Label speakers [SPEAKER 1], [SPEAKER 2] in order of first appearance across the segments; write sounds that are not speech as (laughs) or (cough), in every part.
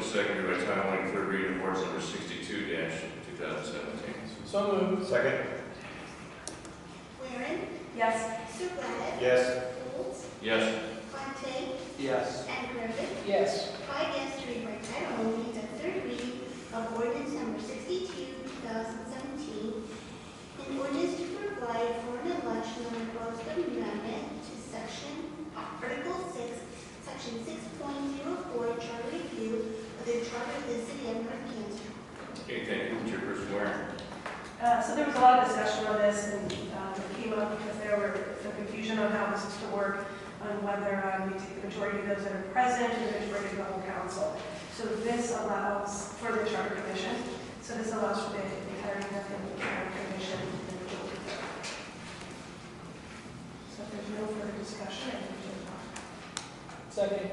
[SPEAKER 1] seconded by title only, third reading of ordinance number sixty-two two thousand seventeen.
[SPEAKER 2] So moved.
[SPEAKER 3] Second?
[SPEAKER 4] Waring,
[SPEAKER 5] Yes.
[SPEAKER 4] Surratt,
[SPEAKER 3] Yes.
[SPEAKER 4] Golds,
[SPEAKER 1] Yes.
[SPEAKER 4] Fontaine,
[SPEAKER 2] Yes.
[SPEAKER 4] and Griffin.
[SPEAKER 2] Yes.
[SPEAKER 4] Five yes to read by title only the third reading of ordinance number sixty-two, two thousand seventeen, an ordinance to provide for an election of a proposed amendment to section, article six, section six point zero four, charter review of the charter of the city of North Canton.
[SPEAKER 1] Okay, thank you, Chairperson Waring.
[SPEAKER 5] Uh, So there was a lot of discussion on this, and um, it came up because there were some confusion on how this is to work, on whether um, you take the majority of those that are present and the majority of the whole council. So this allows for the charter commission, so this allows for the entirety of the charter commission. individually. So if there's no further discussion, I think we can...
[SPEAKER 2] Second.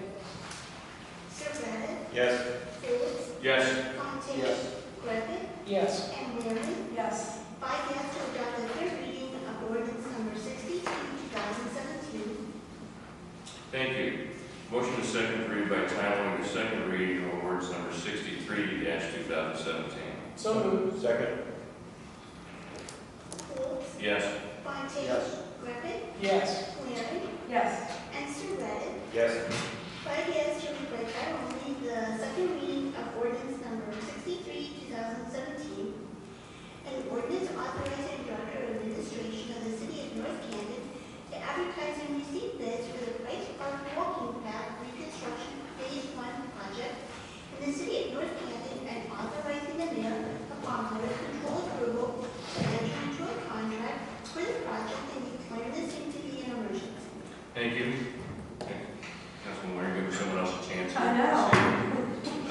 [SPEAKER 4] Surratt,
[SPEAKER 3] Yes.
[SPEAKER 4] Golds,
[SPEAKER 1] Yes.
[SPEAKER 4] Fontaine,
[SPEAKER 2] Yes.
[SPEAKER 4] Griffin,
[SPEAKER 2] Yes.
[SPEAKER 4] and Waring.
[SPEAKER 5] Yes.
[SPEAKER 4] Five yes to adopt the third reading of ordinance number 62, 2017.
[SPEAKER 1] Thank you. Motion to second to read by title only, the second reading of ordinance number sixty-three two thousand seventeen.
[SPEAKER 2] So moved.
[SPEAKER 3] Second?
[SPEAKER 4] Folds,
[SPEAKER 1] Yes.
[SPEAKER 4] Fontaine,
[SPEAKER 2] Yes.
[SPEAKER 4] Griffin,
[SPEAKER 2] Yes.
[SPEAKER 4] Waring,
[SPEAKER 5] Yes.
[SPEAKER 4] and Surratt.
[SPEAKER 3] Yes.
[SPEAKER 4] Five yes to read by title only the second reading of ordinance number 63, 2017. An ordinance authorizing director of administration of the city of North Canton to advertise and receive bids for the Price Park Walking Path Reconstruction Phase One project in the city of North Canton and authorizing the mayor upon board control approval to enter into a contract for the project and declare the same to be an emergency.
[SPEAKER 1] Thank you. Councilman Waring, giving someone else a chance.
[SPEAKER 5] I know.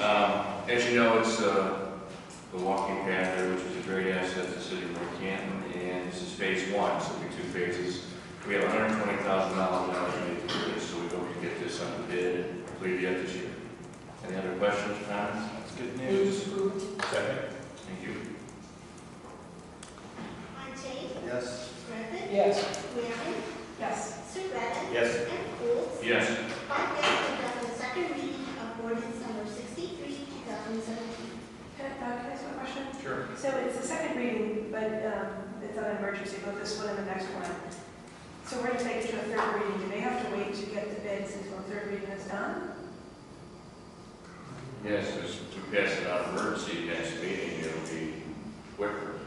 [SPEAKER 1] Um, As you know, it's uh, the walking path there, which is a great asset to the city of North Canton, and this is phase one, so we have two phases. We have hundred and twenty thousand dollars allocated to this, so we hope to get this on the bid and complete it yet this year. Any other questions, comments? That's good
[SPEAKER 2] Move to approve.
[SPEAKER 3] Second?
[SPEAKER 1] Thank you.
[SPEAKER 4] Fontaine,
[SPEAKER 3] Yes.
[SPEAKER 4] Griffin,
[SPEAKER 2] Yes.
[SPEAKER 4] Waring,
[SPEAKER 5] Yes.
[SPEAKER 4] Surratt.
[SPEAKER 3] Yes.
[SPEAKER 4] And Folds.
[SPEAKER 1] Yes.
[SPEAKER 4] Five yes to adopt the second reading of ordinance number sixty-three, two thousand seventeen.
[SPEAKER 5] Can I uh, can I ask one question?
[SPEAKER 1] Sure.
[SPEAKER 5] So it's the second reading, but um, it's on emergency, both this one and the next one. So we're going to take it to a third reading. Do they have to wait to get the bids until the third reading is done?
[SPEAKER 1] Yes, as we pass it out of emergency next meeting, it'll be quicker,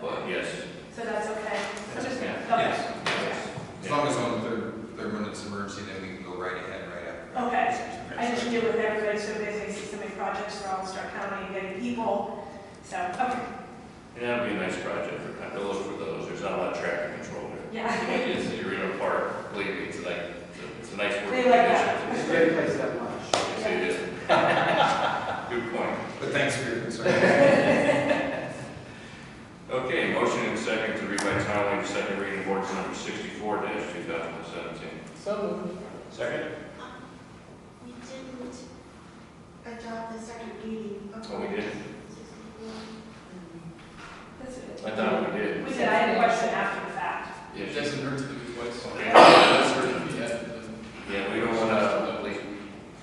[SPEAKER 1] but
[SPEAKER 5] Okay.
[SPEAKER 1] yes.
[SPEAKER 5] So that's okay? So just-
[SPEAKER 1] Yeah.
[SPEAKER 5] okay.
[SPEAKER 1] Yes.
[SPEAKER 6] As long as on the third, third one it's emergency, then we can go right ahead, right after.
[SPEAKER 5] Okay. I just deal with everybody, so basically see so many projects for all Stark County and getting people. So, okay,
[SPEAKER 1] And that'll be a nice project, I have to look for those, there's not a lot of traffic control there.
[SPEAKER 5] yeah.
[SPEAKER 1] It is, you're in a park, believe me, it's like, it's a nice work.
[SPEAKER 5] They like that.
[SPEAKER 1] condition.
[SPEAKER 2] Great place that much.
[SPEAKER 1] Yes, it is. (laughs) Good point.
[SPEAKER 6] But thanks for your concern.
[SPEAKER 5] (laughs)
[SPEAKER 1] Okay, motion and second to read by title only, the second reading of ordinance number sixty-four two thousand and seventeen.
[SPEAKER 2] So moved.
[SPEAKER 3] Second?
[SPEAKER 4] Uh, We didn't adopt the second reading of.
[SPEAKER 1] Oh, we did?
[SPEAKER 4] ordinance 64.
[SPEAKER 5] That's it.
[SPEAKER 1] I thought we did.
[SPEAKER 5] We said I had a question after the fact.
[SPEAKER 1] Yes.
[SPEAKER 7] doesn't hurt to do it twice.
[SPEAKER 1] Okay.
[SPEAKER 7] That's hurt to be added, doesn't
[SPEAKER 1] Yeah, we don't wanna,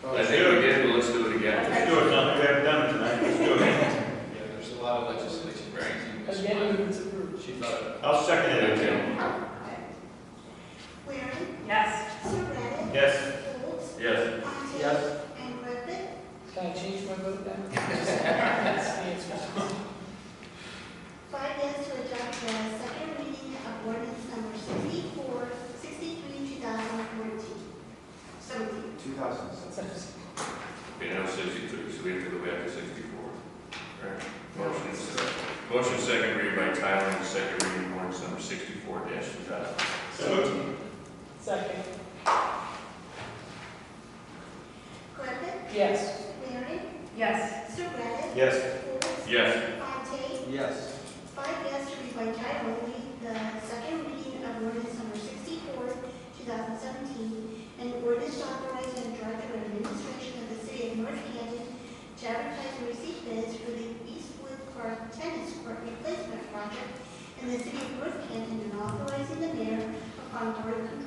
[SPEAKER 1] I think we did, but let's do it again.
[SPEAKER 3] Let's do it, John. We haven't done it tonight. Let's do it.
[SPEAKER 7] it? Yeah, there's a lot of legislation.
[SPEAKER 1] Right.
[SPEAKER 2] Again, move to approve.
[SPEAKER 7] She thought of
[SPEAKER 3] I'll second it.
[SPEAKER 1] Okay.
[SPEAKER 4] Waring,
[SPEAKER 5] Yes.
[SPEAKER 4] Surratt,
[SPEAKER 3] Yes.
[SPEAKER 4] Folds,
[SPEAKER 1] Yes,
[SPEAKER 4] Fontaine.
[SPEAKER 2] Yes.
[SPEAKER 4] And Griffin.
[SPEAKER 2] Can I change my vote then? (laughs) Yes.
[SPEAKER 4] Five yes to adopt the second reading of ordinance number 64, 63, 2014. 17.
[SPEAKER 1] okay, now sixty-three, so we have to go back to sixty-four. Right. Motion, and second. motion and second read by title only, the second reading of ordinance number sixty-four two thousand.
[SPEAKER 3] So moved.
[SPEAKER 2] Second.
[SPEAKER 4] Griffin,
[SPEAKER 2] Yes.
[SPEAKER 4] Waring,
[SPEAKER 5] Yes.
[SPEAKER 4] Surratt,
[SPEAKER 3] Yes.
[SPEAKER 4] Folds,
[SPEAKER 1] Yes.
[SPEAKER 4] Fontaine.
[SPEAKER 2] Yes.
[SPEAKER 4] Five yes to read by title only the second reading of ordinance number 64, 2017, and ordinance authorizing the director of administration of the city of North Canton to advertise and receive bids for the Eastwood Park Tennis Court Replacement Project in the city of North Canton and authorizing the mayor upon board control